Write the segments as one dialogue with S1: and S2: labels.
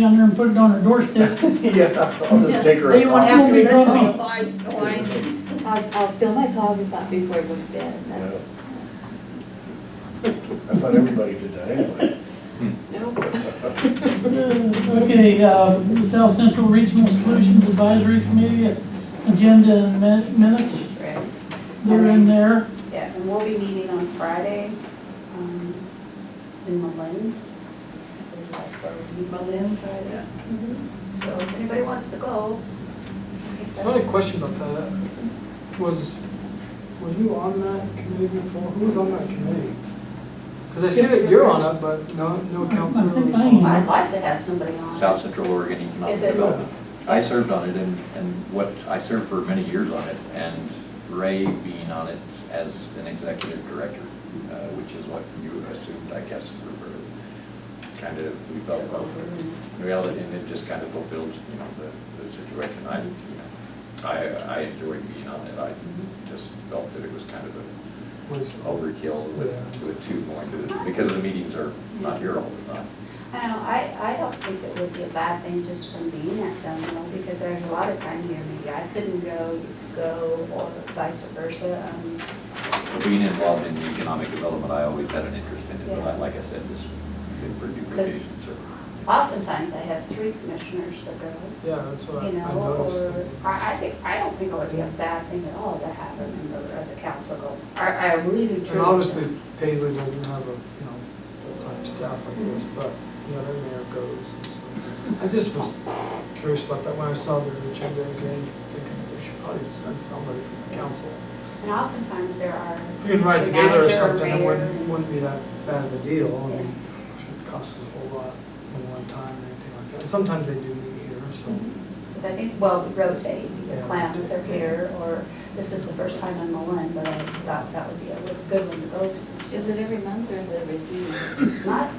S1: down there and put it on her doorstep.
S2: Yeah, I'll just take her.
S3: Then you won't
S2: out.
S3: have
S1: Won't
S3: to
S1: be
S3: listen
S1: gone.
S3: to why, why.
S4: I'll, I'll fill my coffee pot before I go to bed, that's.
S2: I thought everybody did that anyway.
S1: Okay, uh, the South Central Regional Solutions Advisory Committee, agenda and min- minutes,
S4: Right.
S1: they're in there.
S4: Yeah, and we'll be meeting on Friday, um, in Malin. Is the last part we meet
S3: Malin?
S4: Friday. So if anybody wants to go. I think
S5: So I had a
S4: that's-
S5: question about that. Was, were you on that committee before? Who was on that committee? Because I see that you're on it, but no, no
S1: I
S5: council
S1: think
S5: was
S1: I
S5: on
S1: am.
S5: it.
S4: I'd like to have somebody on.
S6: South Central Oregon Economic
S4: Is it-
S6: Development. I served on it and, and what, I served for many years on it and Ray being on it as an executive director, uh, which is what you assumed, I guess, we were kind of, we felt about the reality and it just kind of fulfilled, you know, the, the situation. I, you know, I, I enjoyed being on it. I just felt that it was kind of a
S5: Was-
S6: overkill with,
S5: Yeah.
S6: with two going to this, because the meetings are not here all the time.
S4: I don't know, I, I don't think it would be a bad thing just from being at Dunmore, because there's a lot of time here, maybe I couldn't go, you could go, or vice versa, um,
S6: Being involved in economic development, I always had an interest in it, but I- like I said, this, been pretty duplication, so.
S4: oftentimes I have three commissioners that go,
S5: Yeah, that's what I I
S4: you know,
S5: noticed.
S4: or, I, I think, I don't think it would be a bad thing at all to have a member of the council go. I, I really do.
S5: And obviously Paisley doesn't have a, you know, full-time staff like this, but, you know, their mayor goes. and stuff. I just was curious about that when I saw their agenda again, thinking they should probably send somebody from the council.
S4: And oftentimes there are.
S5: You can ride together or
S4: manager
S5: something, it
S4: mayor,
S5: wouldn't, wouldn't be that bad of a deal, I mean, it shouldn't cost us a whole lot in one time or anything like that. Sometimes they do meet here, so.
S4: Because I think, well, we rotate, either
S5: Yeah.
S4: Clam with their hair, or this is the first time on Malin, but I thought that would be a really good one to go to.
S3: Is it every month or is it every few months?
S4: It's not,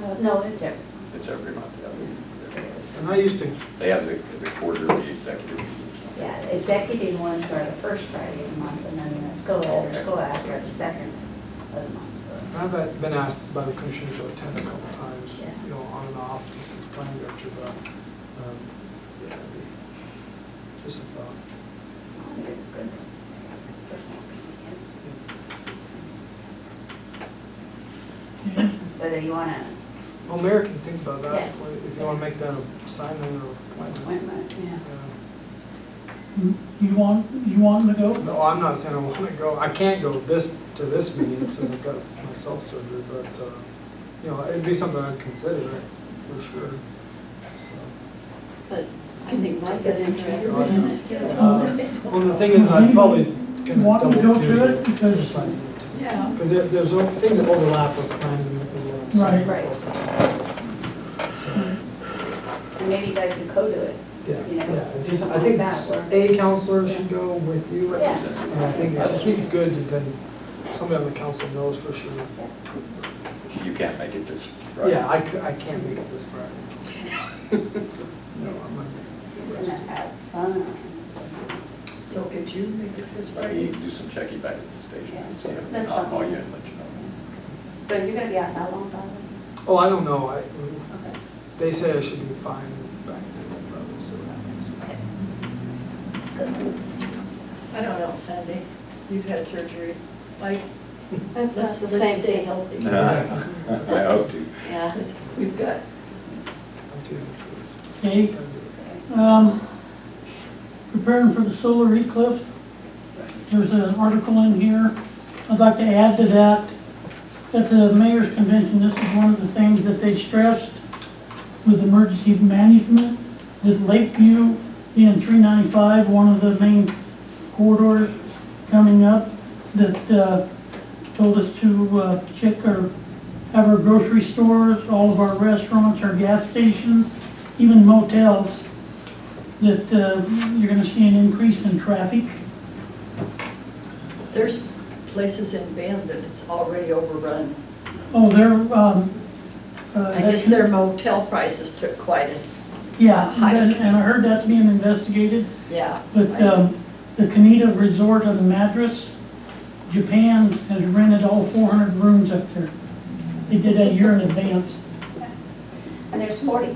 S4: no, no, it's every,
S6: It's every month, yeah. they-
S5: And I used to,
S6: They have the, the quarterly executive meetings.
S4: yeah, the executive ones are the first Friday of the month, and then the school, or school after are the second of the month, so.
S5: I've been- been asked by the commission to attend a couple times,
S4: Yeah.
S5: you know, on and off, just as planning director, but, um, yeah, it'd be just a thought.
S4: I think It's a good, personal opinions.
S1: Yeah.
S4: So do you wanna,
S5: Well, Mayor can think about that,
S4: Yeah.
S5: if you wanna make that a sign or appointment.
S4: appointment?
S5: Yeah.
S1: You want, you want them to go?
S5: No, I'm not saying I wanna go, I can't go this, to this meeting since I've got myself surgery, but, uh, you know, it'd be something I'd consider, for sure. So,
S3: But I think Mike is
S5: Awesome.
S3: interested.
S5: uh, Well, the thing is, I probably can
S1: Want
S5: double
S1: to
S5: do.
S1: go to it? Because
S5: if I need to.
S3: Yeah.
S5: Because there, there's o- things that overlap with planning as well. I'm saying.
S4: Right. Right. And maybe you guys can co-do it.
S5: Yeah,
S4: You know,
S5: yeah, just, I
S4: something
S5: think
S4: like that,
S5: a counselor should go with you.
S4: Yeah.
S5: And I think it's just good that then somebody on the council knows for sure.
S6: You can't make it this Friday.
S5: Yeah, I cou- I can't make it this Friday. No, I'm not.
S4: And then have fun.
S3: So could you make it this
S6: But you
S3: Friday?
S6: can do some checking back at the station and see, if-
S4: That's
S6: I'll
S4: fine.
S6: call you and let you know.
S4: So you're gonna be out how long, Bob?
S5: Oh, I don't know, I,
S4: Okay.
S5: they say I should be fine back to the level, so that happens.
S3: I don't know, Sandy. You've had surgery. Like,
S4: That's
S3: let's, let's stay healthy.
S6: I hope to.
S3: Yeah. We've got
S5: I'm too into
S1: Okay,
S5: this. Gotta do it.
S1: um, preparing for the solar eclipse. There's an article in here. I'd like to add to that, at the mayor's convention, this is one of the things that they stressed with emergency management, that Lakeview being three ninety-five, one of the main corridors coming up, that, uh, told us to, uh, check our, have our grocery stores, all of our restaurants, our gas stations, even motels, that, uh, you're gonna see an increase in traffic.
S3: There's places in Bend that it's already overrun.
S1: Oh, they're, um, uh,
S3: I guess
S1: that's-
S3: their motel prices took quite a,
S1: Yeah,
S3: hike.
S1: and and I heard that's being investigated,
S3: yeah.
S1: but,
S3: I-
S1: um, the Kaneda Resort on the Madras, Japan has rented all four hundred rooms up there. They did that a year in advance.
S4: And there's forty